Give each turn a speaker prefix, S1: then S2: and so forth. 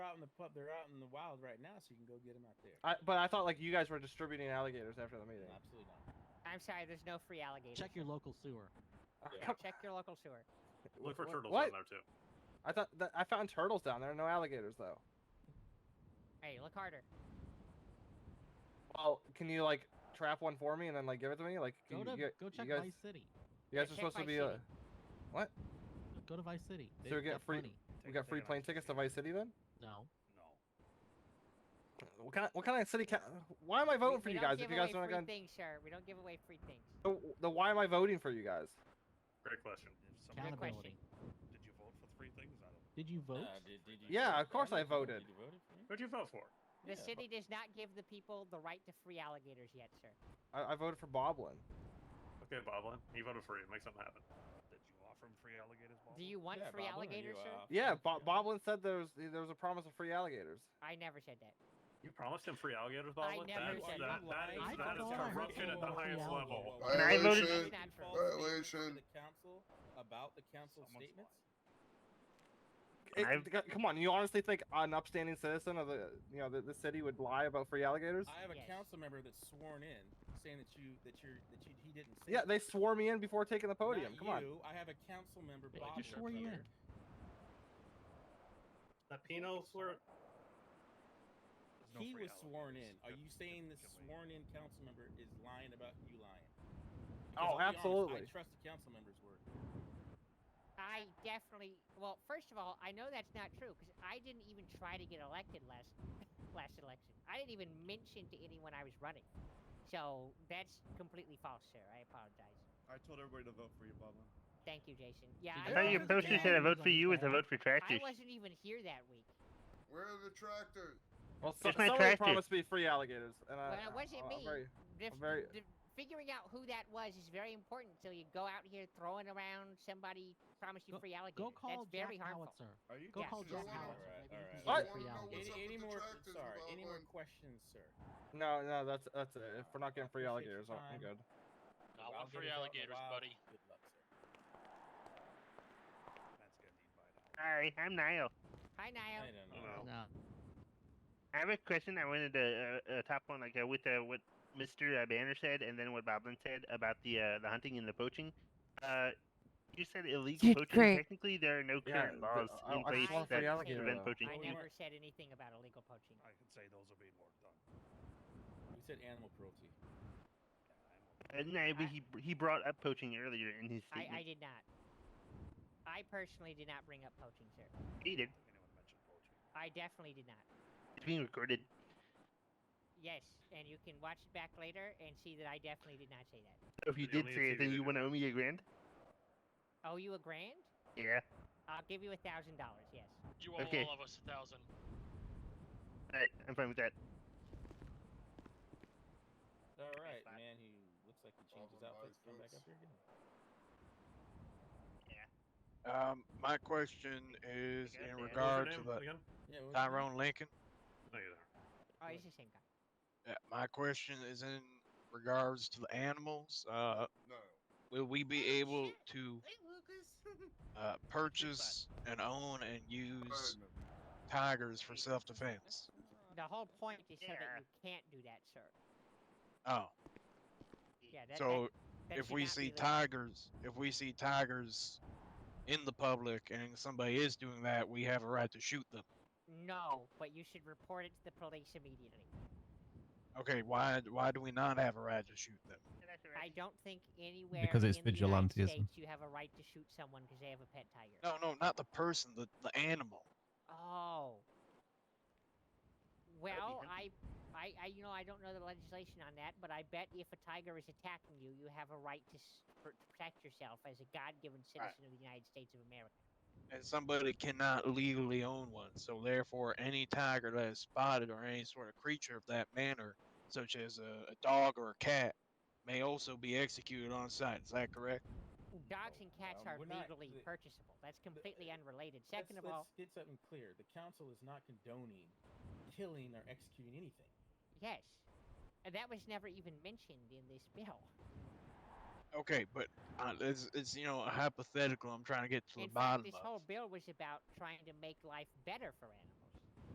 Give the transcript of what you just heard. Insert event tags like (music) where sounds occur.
S1: pup. They're out in the wild right now, so you can go get them out there.
S2: I, but I thought like you guys were distributing alligators after the meeting.
S1: No, absolutely not.
S3: I'm sorry, there's no free alligators.
S4: Check your local sewer.
S2: Oh, (laughs)
S1: Yeah.
S2: come-
S3: (laughs) Check your local sewer.
S5: Look for
S2: what-
S5: turtles
S2: what?
S5: down there too.
S2: I thought that, I found turtles down there. No alligators though.
S3: Hey, look harder.
S2: Well, can you like trap one for me and then like give it to me? Like
S4: Go
S2: you,
S4: to
S2: you,
S4: go check
S2: you guys,
S4: Vice City.
S2: you guys are
S3: Check
S2: supposed to
S3: Vice
S2: be.
S3: City.
S2: Uh,
S4: Go to Vice City.
S2: So
S4: They've
S2: we get
S4: got
S2: free-
S4: plenty.
S2: we got free plane tickets to Vice City then.
S4: No.
S5: No.
S2: What kind? Of, what kind of city? Ca- why am I voting
S3: we,
S2: for
S3: we
S2: you
S3: don't
S2: guys?
S3: give
S2: If you guys want
S3: away free
S2: to go,
S3: things, sir. We don't give away free things.
S2: the, the why am I voting for you guys?
S5: Great question.
S3: Good
S4: Accountability.
S3: question.
S5: Did you vote for three things? I don't.
S4: Did you vote?
S1: Uh, did, did you
S2: Yeah,
S1: vote
S2: of
S1: for
S2: course
S1: me?
S2: I
S1: Did
S2: voted.
S1: you vote for me?
S5: Who'd you vote for?
S3: The
S1: Yeah,
S3: city does not give the people the right to free alligators yet, sir.
S2: I, I voted for Boblin.
S5: Okay, Boblin. He voted for you. Make something happen. Did you offer him free alligators, Boblin?
S3: Do you want
S1: Yeah,
S3: free
S1: Bob, what are
S3: alligators,
S1: you,
S3: sir?
S1: uh,
S2: Yeah,
S1: fucking
S2: Bo-
S1: free alligator?
S2: Boblin said there was there was a promise of free alligators.
S3: I never said that.
S5: You promised him free alligators,
S3: I
S5: Boblin?
S3: never
S5: That's-
S3: said
S5: that,
S3: that.
S5: that is,
S4: I
S5: that is
S4: thought I heard
S5: corruption at
S4: someone vote for
S5: the highest
S4: the
S5: level.
S4: alligator.
S6: I
S1: False
S6: voted-
S1: statements
S3: Not
S1: to
S3: true.
S1: the
S6: Violation.
S1: council about the council
S5: Someone's
S1: statements.
S2: It-
S5: I've-
S2: c- come on, you honestly think an upstanding citizen of the you know the, the city would lie about free alligators?
S1: I have a
S3: Yes.
S1: council member that's sworn in saying that you that you're that you, he didn't say.
S2: Yeah,
S1: it.
S2: they swore me in before taking the
S1: Not
S2: podium. Come on.
S1: you, I have a council member.
S4: They
S1: Bob
S4: just
S1: that's
S4: swore you
S1: here.
S4: in.
S5: That penal slur.
S1: He was sworn in. Are you saying this sworn in council member is lying about you lying? Because I'll be
S2: Oh,
S1: honest,
S2: absolutely.
S1: I trust the council member's word.
S3: I definitely. Well, first of all, I know that's not true because I didn't even try to get elected last (laughs) last election. I didn't even mention to anyone I was running. So that's completely false, sir. I apologize.
S7: I told everybody to vote for you, Boblin.
S3: Thank you, Jason. Yeah,
S4: Did
S8: I thought your
S3: wasn't
S8: poster
S3: there.
S8: said a vote for you is a vote for
S3: I
S8: tractors.
S3: wasn't even here that week.
S6: Where are the tractors?
S2: Well, so,
S8: It's my
S2: somebody
S8: tractor.
S2: promised me free alligators, and I,
S3: Well, it
S2: Uh,
S3: wasn't
S2: I'm
S3: me.
S2: very-
S3: Dif-
S2: very-
S3: di- figuring out who that was is very important. So you go out here throwing around somebody promised you free alligators.
S4: Go
S3: that's
S4: call
S3: very
S4: Jack
S3: harmful.
S4: Howitzer.
S7: Are you?
S4: Go
S3: Yeah.
S4: call
S6: So
S4: Jack
S6: what?
S4: Howitzer.
S1: Alright,
S4: Maybe he
S1: alright.
S4: can get
S6: I
S4: free
S6: wanna know
S4: alligators.
S1: Any,
S6: what's up
S1: any
S6: with the
S1: more?
S6: tractors,
S1: Sorry, any more
S6: Boblin?
S1: questions, sir?
S2: No, no, that's that's it. If we're not getting
S1: Appreciate
S2: free
S1: your
S2: alligators, I'm-
S1: time.
S2: I'm good.
S1: The wild
S9: free
S1: gators out in the
S9: alligators,
S1: wild.
S9: buddy.
S1: Good luck, sir.
S8: Hi, I'm Niall.
S3: Hi,
S1: I
S3: Niall.
S1: don't know.
S5: Well,
S4: No.
S8: I have a question I wanted to uh, uh, top on, like uh, with uh, what Mr. Uh, Banner said and then what Boblin said about the uh, the hunting and the poaching. Uh, you said illegal
S10: Good
S8: poaching.
S10: great.
S8: Technically, there are no
S2: Yeah,
S8: current
S2: but
S8: laws
S2: I-
S8: in
S2: I
S8: place
S2: just want
S8: that
S2: free alligator,
S8: prevent
S2: though.
S8: poaching.
S3: I
S1: you-
S3: never said anything about illegal poaching.
S5: I can say those will be more done.
S1: You said animal cruelty.
S8: Uh, no, but he he brought up poaching earlier in his
S3: I,
S8: statement.
S3: I did not. I personally did not bring up poaching, sir.
S8: He did.
S5: Anyone mention poetry?
S3: I definitely did not.
S8: It's being recorded.
S3: Yes, and you can watch it back later and see that I definitely did not say that.
S8: So if you
S5: You don't
S8: did
S5: need to
S8: say
S5: say
S8: it, then
S5: you
S8: you
S5: did.
S8: want to owe me a grand?
S3: Owe you a grand?
S8: Yeah.
S3: I'll give you a thousand dollars. Yes.
S9: You owe
S8: Okay.
S9: all of us a thousand.
S8: Alright, I'm fine with that.
S1: All right,
S8: fine.
S1: man. He looks like he changed his
S6: Problem
S1: outfit.
S6: lies
S1: Come back
S6: loose.
S1: up here again.
S10: Um, my question is
S8: Yeah, yeah, those are
S5: What was
S10: in
S5: your
S10: regard to
S5: name
S10: the
S1: Yeah,
S5: again?
S1: what was his name?
S10: Tyrone Lincoln.
S5: No, you're there.
S3: Oh,
S1: Good.
S3: it's the same guy.
S10: Yeah, my question is in regards to the animals. Uh,
S6: No.
S10: will we be
S3: Oh,
S10: able
S3: shit.
S10: to
S3: Hey, Lucas.
S10: uh, purchase and own and use
S6: Birdman.
S10: tigers for self-defense?
S3: The whole point is so
S8: Yeah.
S3: that you can't do that, sir.
S10: Oh,
S3: Yeah. That,
S10: so
S3: that, that
S10: if
S3: should
S10: we
S3: not be
S10: see
S3: legal.
S10: tigers, if we see tigers in the public and somebody is doing that, we have a right to shoot them.
S3: No, but you should report it to the police immediately.
S10: Okay, why why do we not have a right to shoot them?
S3: I don't think anywhere
S11: Because it's
S3: in the United
S11: vigilantism.
S3: States you have a right to shoot someone because they have a pet tiger.
S10: No, no, not the person, the the animal.
S3: Oh.
S8: be
S3: Well, I,
S8: handy.
S3: I, I, you know, I don't know the legislation on that, but I bet if a tiger is attacking you, you have a right to, s- pr- to protect yourself as a God-given citizen of the United States of America.
S10: and somebody cannot legally own one. So therefore, any tiger that is spotted or any sort of creature of that manner, such as a, a dog or a cat, may also be executed on sight. Is that correct?
S3: Dogs
S1: Oh,
S3: and cats
S1: um,
S3: are
S1: we're not-
S3: legally
S1: the-
S3: purchasable. That's completely
S1: uh,
S3: unrelated.
S1: Let's-
S3: 2nd of
S1: let's
S3: all,
S1: get something clear. The council is not condoning killing or executing anything.
S3: yes, and that was never even mentioned in this bill.
S10: Okay, but uh, it's, it's you know a hypothetical. I'm trying to get to the
S3: in fact,
S10: bottom
S3: this
S10: of.
S3: whole bill was about trying to make life better for animals.